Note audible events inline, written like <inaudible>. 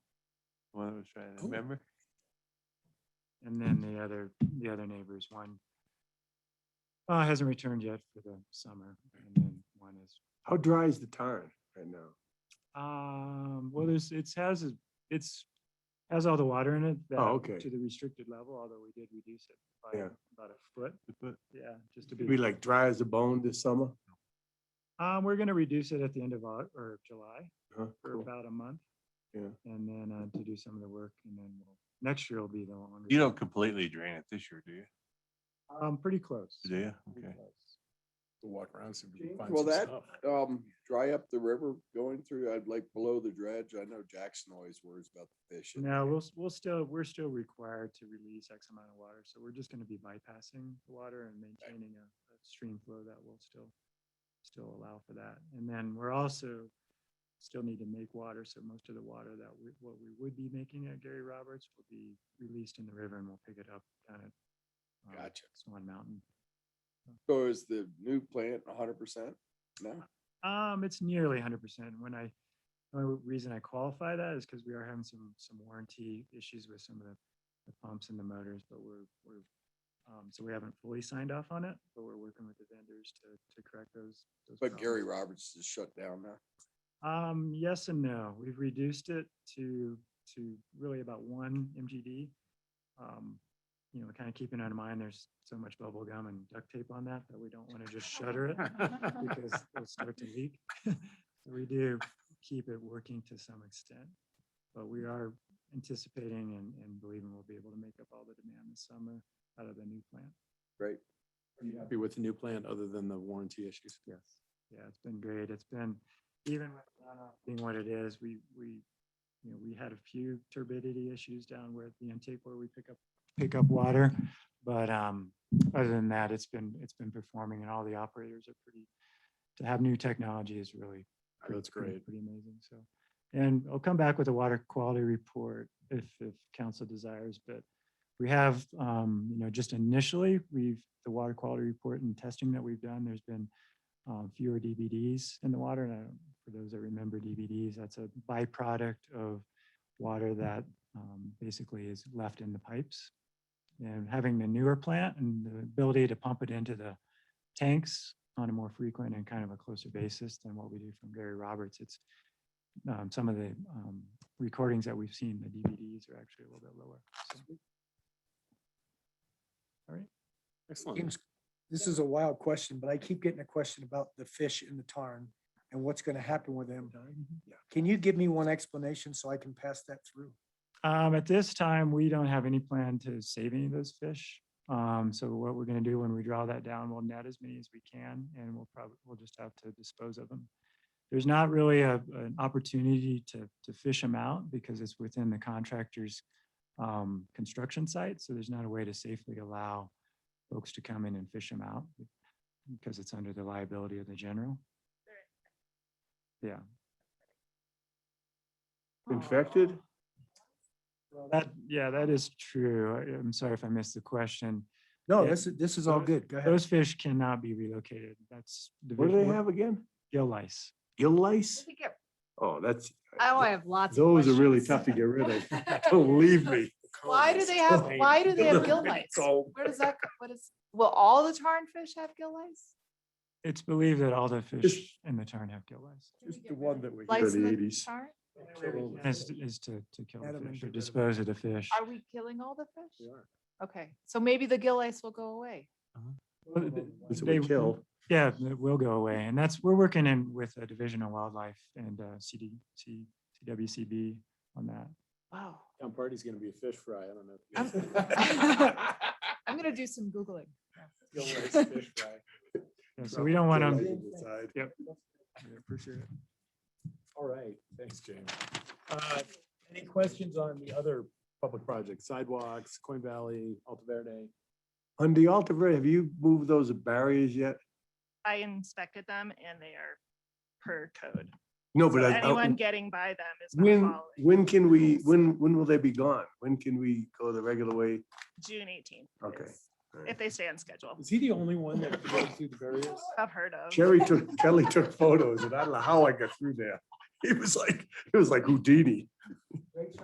was trying to Cool. remember. And then the other, the other neighbors, one uh, hasn't returned yet for the summer, and then one is, How dry is the tarn right now? um, well, there's, it's has, a- it's has all the water in it. that- Oh, okay. To the restricted level, although we did reduce it by Yeah. about a foot, But yeah, just to It'd be be, like dry as a bone this summer? um, we're gonna reduce it at the end of, Au- or July. Huh, for cool. about a month. Yeah. And then uh, to do some of the work and then we'll- next year will be the longer. You don't completely drain it this year, do you? Um, pretty close. Do you? pretty Okay. close. Walk around, see if we James, can find will some that- stuff. um, dry up the river going through, I'd like below the dredge. I know Jackson always worries about the fish. in No, there. we'll, s- we'll still, we're still required to release X amount of water. So we're just going to be bypassing the water and maintaining a a stream flow that will still, still allow for that. And then we're also still need to make water. So most of the water that we, what we would be making at Gary Roberts will be released in the river and we'll pick it up down at um, Gotcha. Swan Mountain. So is the new plant hundred percent? No? Um, it's nearly hundred percent. When I, the only reason I qualify that is because we are having some, some warranty issues with some of the, the pumps and the motors, but we're, we're, um, so we haven't fully signed off on it, but we're working with the vendors to, to correct those. those Um, But Gary problems. Roberts is shut down now. Um, yes and no. We've reduced it to, to really about one MGD. Um, you know, kind of keeping in mind, there's so much bubble gum and duct tape on that, that we don't want to just shutter it because it'll start to leak. <laughs> So We do keep it working to some extent, but we are anticipating and, and believing we'll be able to make up all the demand this summer out of the new plant. Great. Are you happy with the new plant other than the warranty issues? Yes. Yeah, it's been great. It's been, even with runoff being what it is, we, we, you know, we had a few turbidity issues down where at the intake where we pick up, pick up water. But, um, other than that, it's been, it's been performing and all the operators are pretty, to have new technology is really Oh, That's pretty- great. Pretty amazing, so. And I'll come back with a water quality report if, if council desires, but we have, um, you know, just initially, we've, the water quality report and testing that we've done, there's been um, fewer DVDs in the water. And I don't- for those that remember DVDs, that's a byproduct of water that um, basically is left in the pipes. And having the newer plant and the ability to pump it into the tanks on a more frequent and kind of a closer basis than what we do from Gary Roberts. It's um, some of the um, recordings that we've seen, the DVDs are actually a little bit lower. so. Excellent. James, this is a wild question, but I keep getting a question about the fish in the tarn and what's going to happen with them. Mm-hmm. Can you give me one explanation so I can pass that through? Um, at this time, we don't have any plan to save any of those fish. Um, so what we're gonna do when we draw that down, we'll net as many as we can and we'll probably, we'll just have to dispose of them. There's not really a, an opportunity to, to fish them out because it's within the contractor's um, construction site. So there's not a way to safely allow folks to come in and fish them out because it's under the liability of the general. Yeah. Infected? That, yeah, that is true. I- I'm sorry if I missed the question. No, Yeah, this is, this is all those- good. Go ahead. Those fish cannot be relocated. That's. What do division- they have again? Gill lice. Gill lice? think it- Oh, that's. Uh, Oh, I have lots. of Those are really tough questions. to get rid <laughs> of. Believe me. Why do they have, why do they have gill lice? Where does that, co- what is, will all the tarn fish have gill lice? It's believed that all the fish in the tarn have gill lice. Just the one that we. Lice Early in the 80s. tarn? And Is, is to, to kill the Adam and fish or Deliver. dispose of the fish. Are we killing all the fish? are. Okay, so maybe the gill lice will go away. Well, th- That's what they- we kill. Yeah, it will go away. And that's, we're working in with the Division of Wildlife and uh, CD, C- CWCB on that. Wow. Town party's gonna be a fish fry. I don't know. if you I'm <laughs> <laughs> I'm gonna do some Googling. guys feel like it's fish fry. Yeah, So we don't want Gill them. lice on the side. Appreciate it. All right, thanks, James. Uh, Any questions on the other public projects, sidewalks, Coin Valley, Alta Verde? On the Alta Verde, have you moved those barriers yet? I inspected them and they are per code. No, So but I- I- anyone getting by them is not when, following. when can we, when, when will they be gone? When can we go the regular way? June eighteenth. Okay, all right. If they stay on schedule, Is he the only one that goes through the barriers? I've heard of. Sherry took, Kelly took photos and I don't know how I got through there. It was like, it was like Houdini.